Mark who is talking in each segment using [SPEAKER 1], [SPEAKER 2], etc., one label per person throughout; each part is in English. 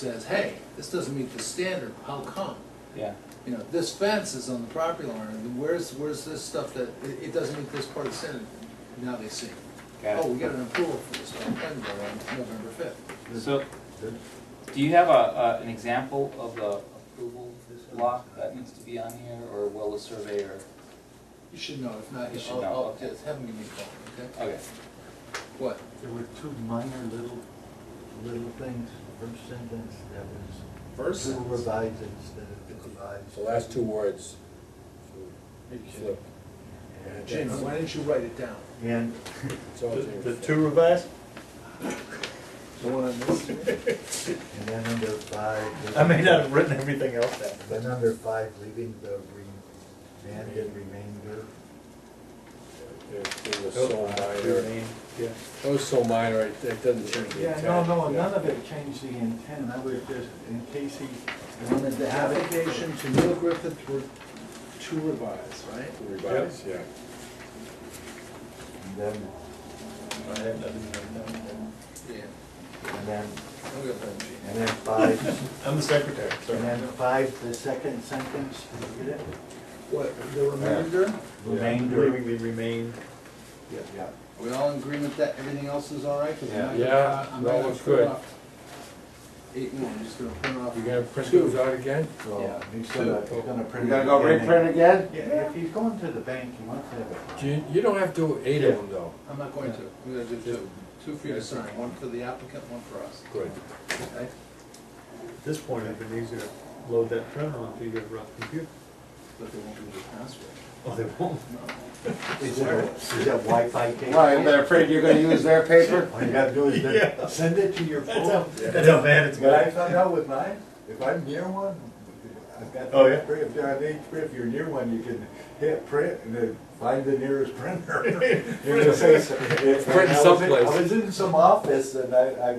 [SPEAKER 1] says, hey, this doesn't meet the standard, how come?
[SPEAKER 2] Yeah,
[SPEAKER 1] You know, this fence is on the property line, and where's, where's this stuff that, it, it doesn't meet this part of the standard? Now they see.
[SPEAKER 2] got
[SPEAKER 1] Oh,
[SPEAKER 2] it.
[SPEAKER 1] we got an approval for this, on planning board on November fifth.
[SPEAKER 2] So, do you have a, a, an example of the approval block that needs to be on here, or will the surveyor?
[SPEAKER 1] You should know, if not,
[SPEAKER 2] You should
[SPEAKER 1] I'll,
[SPEAKER 2] know,
[SPEAKER 1] I'll
[SPEAKER 2] okay.
[SPEAKER 1] just have them give me a call, okay?
[SPEAKER 2] Okay,
[SPEAKER 1] What?
[SPEAKER 3] There were two minor little, little things, first sentence, that was
[SPEAKER 1] First
[SPEAKER 3] two
[SPEAKER 1] sentence.
[SPEAKER 3] revised instead of divides.
[SPEAKER 4] The last two words
[SPEAKER 1] Are you kidding?
[SPEAKER 4] flip.
[SPEAKER 3] And-
[SPEAKER 1] Jim, why didn't you write it down?
[SPEAKER 3] And
[SPEAKER 4] It's all changed.
[SPEAKER 5] revised?
[SPEAKER 1] The one on this?
[SPEAKER 3] And then under five.
[SPEAKER 5] I may not have written everything else down.
[SPEAKER 3] Then under five, leaving the re- and and remainder.
[SPEAKER 4] It it was
[SPEAKER 1] Oh,
[SPEAKER 4] so
[SPEAKER 5] Oh,
[SPEAKER 1] uh,
[SPEAKER 4] minor. It was so minor, it it doesn't change the
[SPEAKER 3] Yeah,
[SPEAKER 4] intent.
[SPEAKER 3] no, no, none of it changed the intent, I was just, in case he wanted to have it.
[SPEAKER 1] Application to Neil Griffith re- to revise, right?
[SPEAKER 4] Revise, yeah.
[SPEAKER 3] And then,
[SPEAKER 1] Yeah.
[SPEAKER 3] and then,
[SPEAKER 1] I'll get that, Gene.
[SPEAKER 3] and then five,
[SPEAKER 5] I'm the secretary,
[SPEAKER 3] and
[SPEAKER 5] sorry.
[SPEAKER 3] then five, the second sentence, did you get it?
[SPEAKER 1] What, the remainder? Are
[SPEAKER 3] Remainder.
[SPEAKER 5] the remain.
[SPEAKER 3] Yeah.
[SPEAKER 1] we all in agreement that everything else is all right? 'Cause I'm not gonna-
[SPEAKER 4] Yeah,
[SPEAKER 1] I'm
[SPEAKER 4] no,
[SPEAKER 1] not gonna
[SPEAKER 4] it's
[SPEAKER 1] print
[SPEAKER 4] good.
[SPEAKER 1] off Eight one, I'm just gonna print off.
[SPEAKER 4] You gonna print those out again?
[SPEAKER 3] So
[SPEAKER 1] Yeah.
[SPEAKER 3] he's gonna, he's gonna print.
[SPEAKER 6] You gotta go reprint again?
[SPEAKER 3] Yeah, if he's going to the bank, he wants to have it.
[SPEAKER 4] Do You, you don't have to do eight of them though.
[SPEAKER 1] I'm not going to, I'm gonna do two, two for you to sign, one for the applicant, one for us,
[SPEAKER 4] Good.
[SPEAKER 1] okay?
[SPEAKER 5] At this point, it'd been easier to load that printer onto your uh, computer.
[SPEAKER 1] But they won't give you the password.
[SPEAKER 5] Oh, they won't.
[SPEAKER 1] No.
[SPEAKER 3] Is that, is that Wi-Fi cable?
[SPEAKER 6] Why, they're afraid you're gonna use their paper?
[SPEAKER 3] All you gotta do is
[SPEAKER 5] Yeah.
[SPEAKER 3] then send it to your
[SPEAKER 5] That's
[SPEAKER 3] phone.
[SPEAKER 5] how, that's how bad it's
[SPEAKER 3] But I
[SPEAKER 5] got.
[SPEAKER 3] found out with mine, if I'm near one, I've got.
[SPEAKER 5] Oh, yeah?
[SPEAKER 3] If you're on each print, if you're near one, you can hit print and then find the nearest printer. You're gonna say so- if-
[SPEAKER 4] Print
[SPEAKER 3] I was in-
[SPEAKER 4] someplace.
[SPEAKER 3] I was in some office and I, I,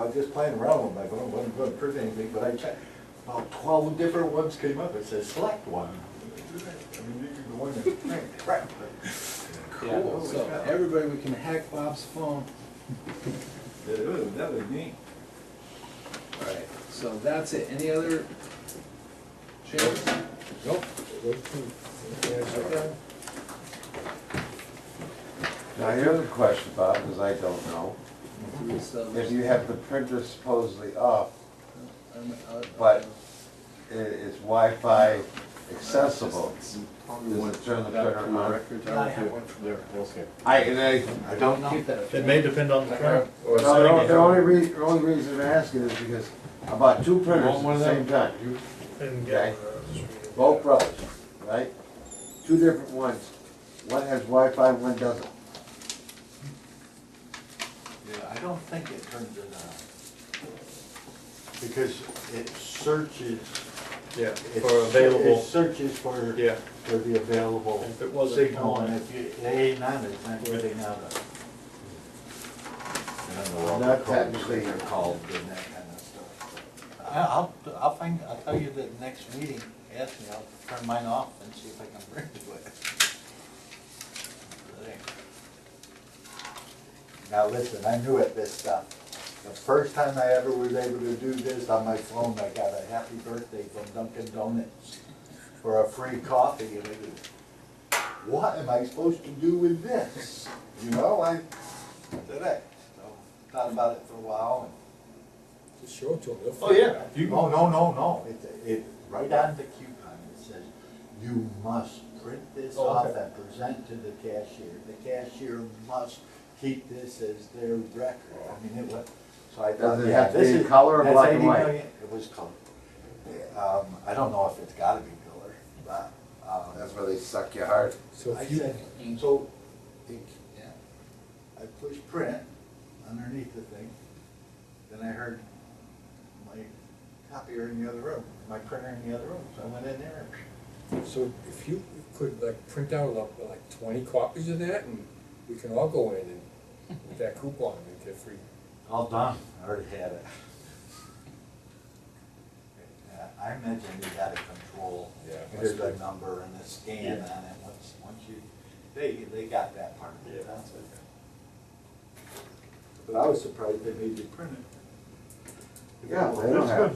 [SPEAKER 3] I was just playing around with my phone, wasn't gonna print anything, but I checked. About twelve different ones came up, it says select one. I mean, you can go in and print, crap.
[SPEAKER 2] yeah,
[SPEAKER 3] Holy
[SPEAKER 1] So,
[SPEAKER 3] cow.
[SPEAKER 1] everybody, we can hack Bob's phone.
[SPEAKER 3] That was, that was neat.
[SPEAKER 1] All right. So that's it, any other changes?
[SPEAKER 6] Mm-hmm.
[SPEAKER 4] Nope. Those two. That's all right.
[SPEAKER 6] Now, here's a question, Bob, because I don't know.
[SPEAKER 1] So-
[SPEAKER 6] If you have the printer supposedly up,
[SPEAKER 1] I'm- I'll-
[SPEAKER 6] But- i- is Wi-Fi accessible? Does it turn the printer on?
[SPEAKER 1] I have one from there.
[SPEAKER 4] Okay.
[SPEAKER 6] I, and I, I don't know.
[SPEAKER 1] Keep that up.
[SPEAKER 5] It may depend on the printer.
[SPEAKER 4] Oh,
[SPEAKER 6] No, the only- the only rea, the only reason I'm asking is because I bought two printers at
[SPEAKER 4] one of
[SPEAKER 6] the
[SPEAKER 4] them?
[SPEAKER 6] same time.
[SPEAKER 5] And uh,
[SPEAKER 6] Okay. Both brothers, right? Two different ones. One has Wi-Fi, one doesn't.
[SPEAKER 3] Yeah, I don't think it turns it on. Because it searches.
[SPEAKER 5] Yeah,
[SPEAKER 3] it
[SPEAKER 5] for available,
[SPEAKER 3] It searches for,
[SPEAKER 5] yeah.
[SPEAKER 3] for the available.
[SPEAKER 5] If it wasn't
[SPEAKER 3] Signal,
[SPEAKER 5] on
[SPEAKER 3] and
[SPEAKER 5] it.
[SPEAKER 3] if you- it ain't on, it's not getting out of. it. I don't know what
[SPEAKER 6] Not
[SPEAKER 3] the codes
[SPEAKER 6] technically.
[SPEAKER 3] They're called and that kind of stuff. I- I'll, I'll find, I'll tell you the next meeting, ask me, I'll turn mine off and see if I can bring it with. There. Now, listen, I knew it, this stuff. The first time I ever was able to do this on my phone, I got a happy birthday from Dunkin' Donuts for a free coffee, and it was, what am I supposed to do with this? You know, I, did it, so, thought about it for a while,
[SPEAKER 4] Just show it to them. They'll
[SPEAKER 5] Oh, yeah.
[SPEAKER 3] and, no, no, no, no, it, it, right on the coupon, it says, you must print this
[SPEAKER 5] Oh,
[SPEAKER 3] off
[SPEAKER 5] okay.
[SPEAKER 3] and present to the cashier. The cashier must keep this as their record, I mean, it was, so I thought,
[SPEAKER 6] Does it
[SPEAKER 3] yeah,
[SPEAKER 6] have to
[SPEAKER 3] this
[SPEAKER 6] be in
[SPEAKER 3] is.
[SPEAKER 6] color or
[SPEAKER 3] that's
[SPEAKER 6] black and
[SPEAKER 3] 80
[SPEAKER 6] white?
[SPEAKER 3] million It was color. Um, I don't know if it's gotta be color, but, um.
[SPEAKER 6] That's where they suck your heart.
[SPEAKER 4] So
[SPEAKER 3] I
[SPEAKER 4] if you,
[SPEAKER 3] said, so, it- I pushed print underneath the thing, then I heard my copier in the other room, my printer in the other room, so I went in there.
[SPEAKER 4] so if you could like print out like- like twenty copies of that and we can all go in and with that coupon and get free.
[SPEAKER 3] All done. I already had it. Uh, I imagine you gotta control,
[SPEAKER 4] Yeah, it
[SPEAKER 3] there's
[SPEAKER 4] must
[SPEAKER 3] a
[SPEAKER 4] be.
[SPEAKER 3] number and a scan on it, once, once you, they, they got that part of it,
[SPEAKER 5] Yeah.
[SPEAKER 3] that's it. But I was surprised they made you print it.
[SPEAKER 7] Yeah, they don't
[SPEAKER 6] That's
[SPEAKER 7] have.
[SPEAKER 6] good.